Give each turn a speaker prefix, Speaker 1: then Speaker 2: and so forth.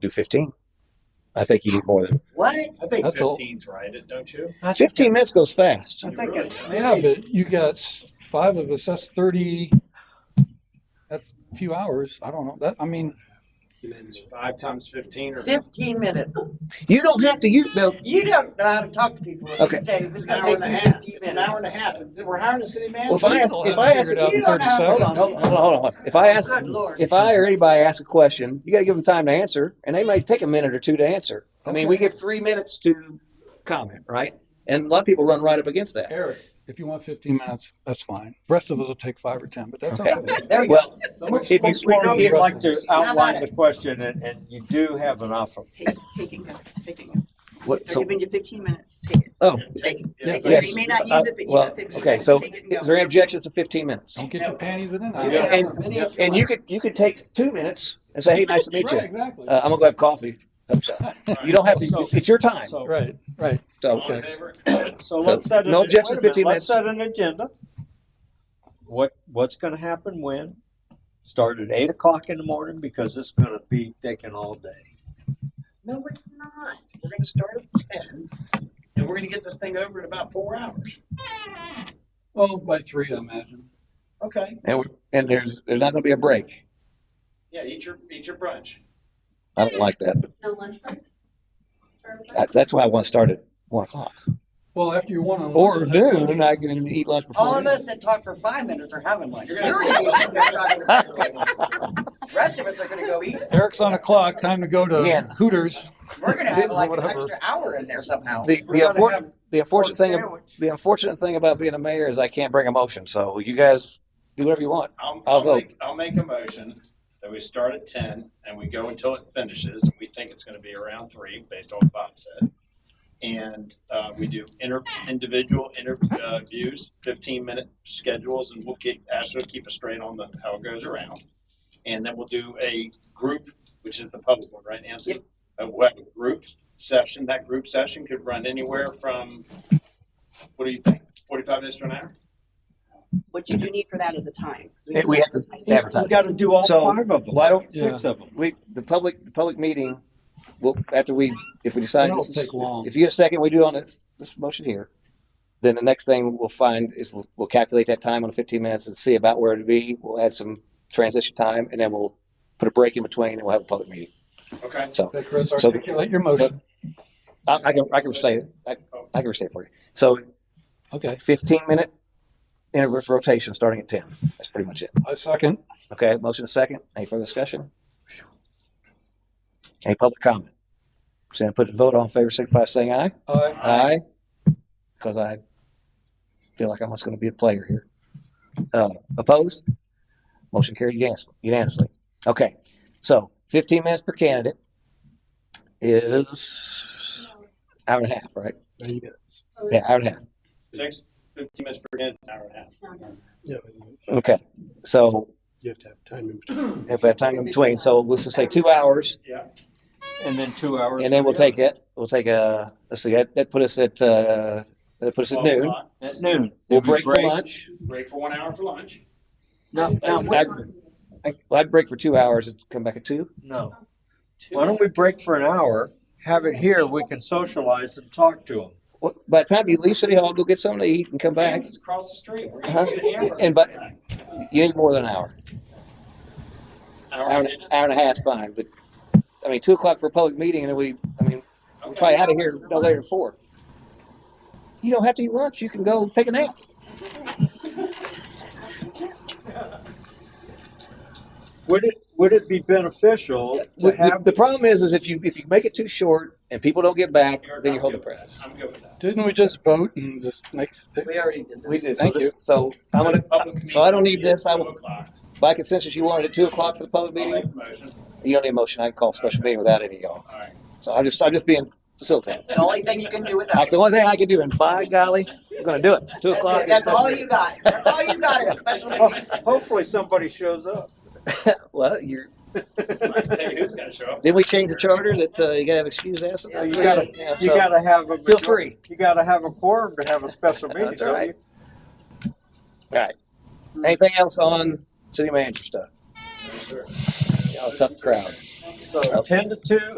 Speaker 1: do 15. I think you need more than
Speaker 2: What?
Speaker 3: I think
Speaker 4: That's all.
Speaker 3: fifteen's right, don't you?
Speaker 2: I think
Speaker 1: 15 minutes goes fast.
Speaker 2: I think it-
Speaker 4: Yeah, but you got s- five of us, that's thirty, that's a few hours. I don't know. That, I mean,
Speaker 3: Five times fifteen or.
Speaker 2: 15 minutes.
Speaker 1: You don't have to use the.
Speaker 2: You don't know how to talk to people.
Speaker 1: Okay.
Speaker 2: Dave, it's
Speaker 3: It's an
Speaker 2: going
Speaker 3: hour
Speaker 2: to
Speaker 3: and a
Speaker 2: take you
Speaker 3: half,
Speaker 2: 15
Speaker 3: it's an hour and
Speaker 2: minutes.
Speaker 3: a half, we're hiring a city manager.
Speaker 1: Well, if I ask,
Speaker 4: Still
Speaker 1: if
Speaker 4: haven't
Speaker 1: I ask,
Speaker 4: figured out
Speaker 2: you
Speaker 4: in
Speaker 2: don't
Speaker 4: thirty
Speaker 2: have-
Speaker 1: hold on,
Speaker 4: seconds.
Speaker 1: hold on, hold on, hold on. If I ask,
Speaker 2: Good Lord.
Speaker 1: if I or anybody asks a question, you got to give them time to answer, and they might take a minute or two to answer. I mean, we give three minutes to comment, right? And a lot of people run right up against that.
Speaker 4: Eric, if you want fifteen minutes, that's fine. Rest of us will take five or ten, but that's
Speaker 1: Okay.
Speaker 4: okay.
Speaker 2: There you
Speaker 1: Well,
Speaker 4: Someone-
Speaker 5: If you, we know you'd like to
Speaker 2: How about
Speaker 5: outline the question and, and you do have an offer.
Speaker 6: Take- Taking it, taking it.
Speaker 1: what,
Speaker 6: Or
Speaker 1: so,
Speaker 6: giving you fifteen minutes, take it.
Speaker 1: oh,
Speaker 6: Take it.
Speaker 4: Yes.
Speaker 6: Take it.
Speaker 1: Yes.
Speaker 6: You may not
Speaker 1: Uh,
Speaker 6: use it, but you
Speaker 1: well,
Speaker 6: got fifteen.
Speaker 1: okay,
Speaker 6: minutes.
Speaker 1: so
Speaker 6: Take it and go.
Speaker 1: is there any objections to 15 minutes?
Speaker 4: Don't get your panties in
Speaker 2: go.
Speaker 4: a knot.
Speaker 1: and-
Speaker 2: Many of
Speaker 1: And you could, you could take two minutes and say, hey, nice to meet
Speaker 4: Right,
Speaker 1: you.
Speaker 4: exactly.
Speaker 1: Uh, I'm going to go have coffee. You don't have to, it's, it's your time.
Speaker 5: So-
Speaker 4: Right, right.
Speaker 1: So,
Speaker 3: All in favor?
Speaker 5: So let's set. an-
Speaker 1: No objection,
Speaker 5: wait a minute,
Speaker 1: 15
Speaker 5: Let's
Speaker 1: minutes.
Speaker 5: set an agenda. What, what's gonna happen when? Start at eight o'clock in the morning because it's gonna be taking all day.
Speaker 3: No, it's not, we're gonna start at ten, and we're gonna get this thing over in about four hours,
Speaker 4: Well, by three, I imagine.
Speaker 3: okay?
Speaker 1: and, we- and there's, there's not going to be a break.
Speaker 3: Yeah, eat your, eat your brunch.
Speaker 1: I don't like that, but
Speaker 6: No lunch break? Or lunch?
Speaker 1: that- that's why I want to start at one o'clock.
Speaker 4: Well, after your one on
Speaker 1: Or noon, and I can eat lunch before.
Speaker 2: All of
Speaker 1: then.
Speaker 2: us that talk for five minutes are having lunch.
Speaker 3: You're
Speaker 2: You're
Speaker 3: gonna-
Speaker 2: gonna go talk for- Rest of us are gonna go eat.
Speaker 4: Eric's on a clock, time to go
Speaker 1: Yeah.
Speaker 4: to Hooters.
Speaker 2: We're gonna have like an
Speaker 4: Whatever.
Speaker 2: extra hour in there somehow.
Speaker 1: The,
Speaker 5: We're
Speaker 1: the
Speaker 5: gonna
Speaker 1: unfortunate,
Speaker 5: have
Speaker 1: the unfortunate thing,
Speaker 5: Pork sandwich.
Speaker 1: the unfortunate thing about being a mayor is I can't bring a motion. So you guys do whatever you want.
Speaker 3: I'll,
Speaker 1: I'll
Speaker 3: I'll
Speaker 1: vote.
Speaker 3: make, I'll make a motion that we start at ten and we go until it finishes, and we think it's gonna be around three, based on what Bob said. And, uh, we do inter, individual interviews, fifteen minute schedules, and we'll keep, Ashley will keep us straight on the, how it goes around. And then we'll do a group, which is the public one, right, Nancy? A what, group session, that group session could run anywhere from, what do you think, forty-five minutes to an hour?
Speaker 7: what you do need for that is a time.
Speaker 1: Hey, we have to
Speaker 5: You
Speaker 1: advertise.
Speaker 5: gotta do all
Speaker 1: So,
Speaker 5: five of them.
Speaker 1: Why don't
Speaker 5: Six of them.
Speaker 1: we, the public, the public meeting, well, after we, if we decide,
Speaker 4: It'll
Speaker 1: this is-
Speaker 4: take long.
Speaker 1: if you get a second, we do on this, this motion here. Then the next thing we'll find is we'll, we'll calculate that time on fifteen minutes and see about where it'd be. We'll add some transition time and then we'll put a break in between and we'll have a public meeting.
Speaker 3: Okay,
Speaker 1: So.
Speaker 4: So Chris,
Speaker 1: So-
Speaker 4: articulate your motion.
Speaker 1: I, I can, I can restate it. I, I can restate it for you. So
Speaker 4: Okay,
Speaker 1: 15 minute inverse rotation starting at 10. That's pretty much it.
Speaker 4: I second.
Speaker 1: Okay, motion is second. Any further discussion? Any public comment? So I put the vote on in favor, signify by saying aye.
Speaker 4: Aye.
Speaker 1: Aye. Because I feel like I'm just going to be a player here. Uh, opposed? Motion carried unanimous- unanimously. Okay, so 15 minutes per candidate is hour and a half, right? Yeah, hour and a half.
Speaker 3: six, fifteen minutes per minute, an hour and a half.
Speaker 6: Oh,
Speaker 1: Okay, so
Speaker 8: You have to have time in between.
Speaker 1: if I have time in between, so let's just say two hours,
Speaker 5: And then two hours.
Speaker 1: and then we'll take it. We'll take a let's see that that put us at uh, that put us at noon.
Speaker 5: At noon.
Speaker 1: We'll
Speaker 5: Then we
Speaker 1: break for lunch.
Speaker 3: uh, Break for one hour for lunch.
Speaker 5: No,
Speaker 1: Now,
Speaker 5: no,
Speaker 1: I'd, well, I'd break for two hours and come back at two.
Speaker 5: no. Why don't we break for an hour, have it here, we can socialize and talk to them.
Speaker 1: Well, By the time you leave City Hall, go get something to eat and come back.
Speaker 3: Kansas is across the street. We're
Speaker 1: Huh?
Speaker 3: gonna get hammered.
Speaker 1: And but you need more than an hour. Hour, and- hour and a half, fine. But I mean, two o'clock for a public meeting, and then we, I mean, we're
Speaker 3: Okay.
Speaker 1: probably out of here no later than four. You don't have to eat lunch. You can go take a nap.
Speaker 5: Would it, would it be beneficial to
Speaker 1: The,
Speaker 5: have?
Speaker 1: the problem is, is if you if you make it too short and people don't get back, then you hold the presses.
Speaker 3: I'm good with that.
Speaker 4: Didn't we just vote and just make?
Speaker 2: We already did that.
Speaker 1: We did.
Speaker 4: Thank
Speaker 1: so
Speaker 4: you.
Speaker 1: This, so I'm gonna.
Speaker 3: Public
Speaker 1: So I don't
Speaker 3: meeting
Speaker 1: need this. I
Speaker 3: at
Speaker 1: will-
Speaker 3: 2:00.
Speaker 1: By consensus, you wanted at two o'clock for the public
Speaker 3: I'll
Speaker 1: meeting.
Speaker 3: make the motion.
Speaker 1: You don't need a motion. I can call a special meeting without any of y'all.
Speaker 3: All right.
Speaker 1: So I'm just I'm just being facilitated.
Speaker 2: It's the only thing you can do with
Speaker 1: That's
Speaker 2: us.
Speaker 1: the only thing I can do, and by golly, I'm gonna do it. Two
Speaker 2: That's
Speaker 1: o'clock.
Speaker 2: it.
Speaker 1: is
Speaker 2: That's
Speaker 1: special
Speaker 2: all
Speaker 1: meeting.
Speaker 2: you got. That's all you got is special
Speaker 1: Oh.
Speaker 2: meetings.
Speaker 5: Hopefully somebody shows up.
Speaker 1: Well, you're.
Speaker 3: I can tell you who's gonna show up.
Speaker 1: Didn't we change the charter that uh, you gotta have excused absence?
Speaker 5: Yeah, you gotta-
Speaker 1: Yeah,
Speaker 5: You
Speaker 1: so-
Speaker 5: gotta have a.
Speaker 1: Feel free.
Speaker 5: You gotta have a quorum to have a special meeting,
Speaker 1: That's all
Speaker 5: don't
Speaker 1: right.
Speaker 5: you?
Speaker 1: Anything else on city manager stuff?
Speaker 3: No, sir.
Speaker 1: Y'all a tough crowd.
Speaker 5: So ten to two